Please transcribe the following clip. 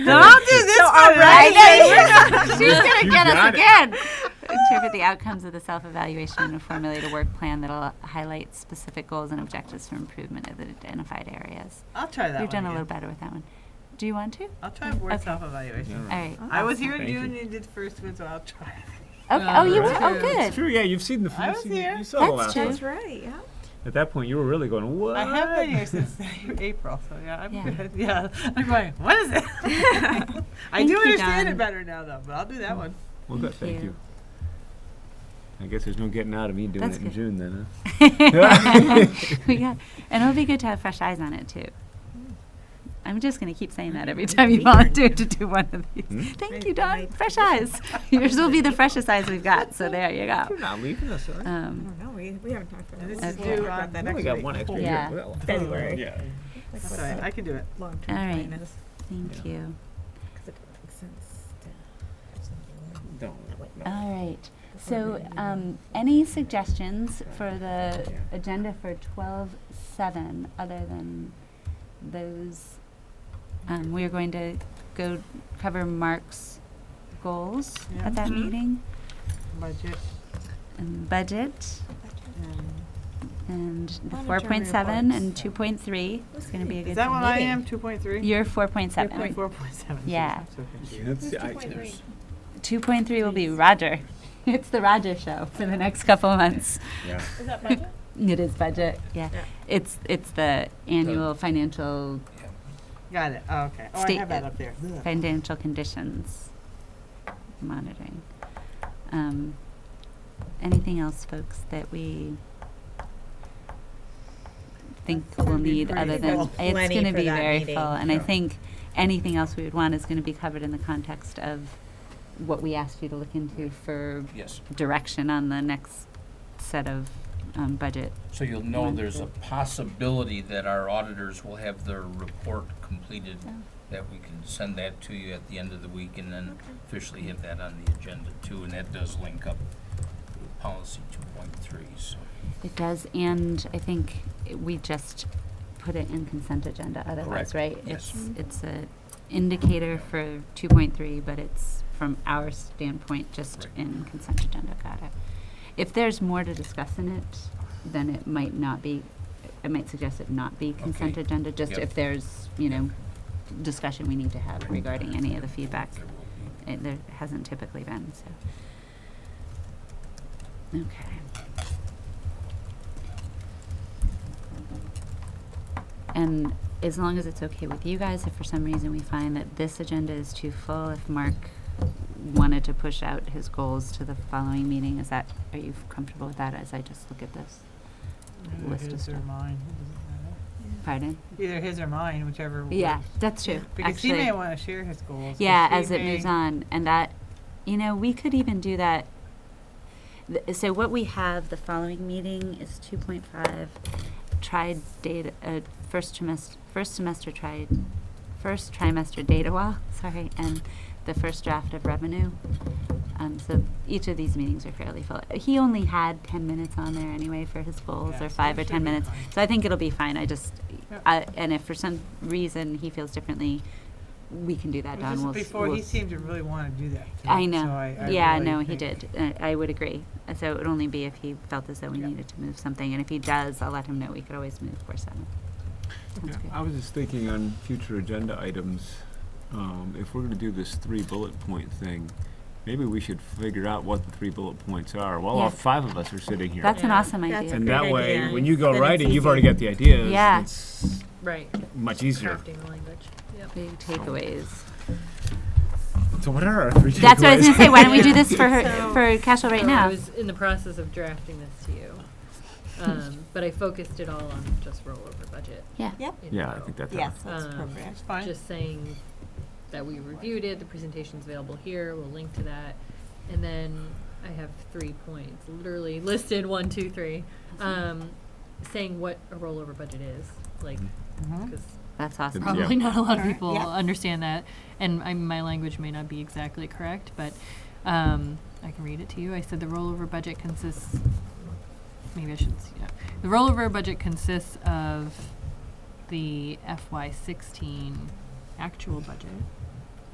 Don't do this All right. She's going to You get us got it. again. Interpret the outcomes of the self evaluation and formulate a work plan that'll highlight specific goals and objectives for improvement of the identified areas. I'll try that You've one done a again. little better with that one. Do you want to? I'll try board Okay. Mm. self-evaluation. All right. I was here in Thank June you. and you did the first one, so I'll try. Okay. Oh, you were. Right. Oh, It's good. true. Yeah, you've seen the. I you've was seen- here. You saw the That's last true. one. That's right. Yeah. At that point, you were really going. What? I have been here since April, so yeah, I'm Yeah. good. Yeah, I'm going. What is it? I Thank do you, understand Don. it better now, though. But I'll do that one. Well, good. Thank Thank you. you. I guess there's no getting out of me doing That's it in good. June then. Huh? we got, and it'll be good to have fresh eyes on it too. I'm just going to keep saying that every time you volunteer to do one of these. Hmm? Thank you, Don. Fresh eyes. Yours will be the freshest eyes we've got. So there you go. You're not leaving us. Huh? I Um, don't know. We, we haven't talked about And this that. We'll is talk due about on- that We only next got week. one extra Yeah. year. Well, February. Yeah. Like That's what all right. the I can do it. long-term All right. plan is, thank you. 'cause it makes sense to- Don't. no. All right. So, uh, um, any suggestions for the agenda for twelve seven other than those? Um, we are going to go cover Mark's goals Yeah. at that Mhm. meeting Budget. and budget And and the Monitoring four point seven and reports. two point three. It's going to be a is good that what I meeting. am? Two point three. You're four point seven. 4.7. Yeah. So confused. That's the Who's 2.3? ideas. Two point three will be Roger. It's the Roger show for the next couple of months. Yeah. Is that budget? It is budget, yeah. Yeah. It's, it's the annual financial, Got it. Oh, okay. Oh, I State- have that up there. Ugh. financial conditions monitoring. Um, Anything else, folks, that we think That's gonna we'll be need pretty other full. than, it's Plenty gonna for be that very meeting. full. And I Yeah. think anything else we would want is gonna be covered in the context of what we asked you to look into for Yes, direction on the next set of um, budget. so you'll know there's a possibility that our auditors will have their report completed, Oh. that we can send that to you at the end of the week and then officially have that on the agenda too, and that does link up with policy two point three, so. It does, and I think i- we just put it in consent agenda otherwise, Correct. right? Yes. It's, it's a indicator for two point three, but it's from our standpoint, just Right. in consent agenda, got it. If there's more to discuss in it, then it might not be, I might suggest it not be consent Okay. agenda, just Yep. if there's, you know, discussion we need to have Right. regarding any of the feedback. There will be. It, there hasn't typically been, so. Okay. And as long as it's okay with you guys, if for some reason we find that this agenda is too full, if Mark wanted to push out his goals to the following meeting, is that, are you comfortable with that as I just look at this? Either List of his or stuff. mine. It doesn't matter. Pardon? Either his or mine, whichever. Yeah, works. that's true, Because actually. he may want to share his goals. or Yeah, she as it moves may- on, and that, you know, we could even do that. Th- So what we have the following meeting is two point five, tried data, uh, first trimester, first semester tried, first trimester data wall, sorry, and the first draft of revenue. Um, so each of these meetings are fairly full. He only had ten minutes on there anyway for his goals, Yeah, or so five it or should ten be minutes. fine. So I think it'll be fine, I just, Yep. I, and if for some reason he feels differently, we can do that, Well, Don. just We'll s- Before, we'll he s- seemed to really want to do that. too, I know. so I- I yeah, really no, he think- did. Uh, I would agree. Uh, So it would only be if he felt as though we Yeah. needed to move something, and if he does, I'll let him know. We could always move four seven. Sounds Yeah, I was just thinking on future agenda items, um, if we're gonna do this three bullet point thing, maybe we should figure out what the three bullet points are while all Yes. five of us are sitting good. here. That's an Yeah. awesome That's idea. a And that great way, idea. when you go Then it's writing, you've already easy. got the ideas. Yeah. It's Right. much easier. Crafting the language. Big takeaways. So what are our three takeaways? That's what I was going to say. Why don't we do Yeah. this for her, So- for Cashel right So I now? was in the process of drafting this to you, um, but I focused it all on just rollover budget. Yeah. Yep. in Yeah, I total. think that's. Yes, how- that's Um, appropriate. It's Uh, fine. Just saying that we reviewed it, the presentation's available here, we'll link to that. And then I have three points, literally listed, one, two, three, uh, um, saying what a rollover budget is, like, Mhm. because That's awesome. Yeah. probably not a lot of Alright, people yeah. understand that, and I, my language may not be exactly correct, but um, I can read it to you. I said the rollover budget consists. Maybe I should. s- Yeah. The rollover budget consists of the FY16 actual budget,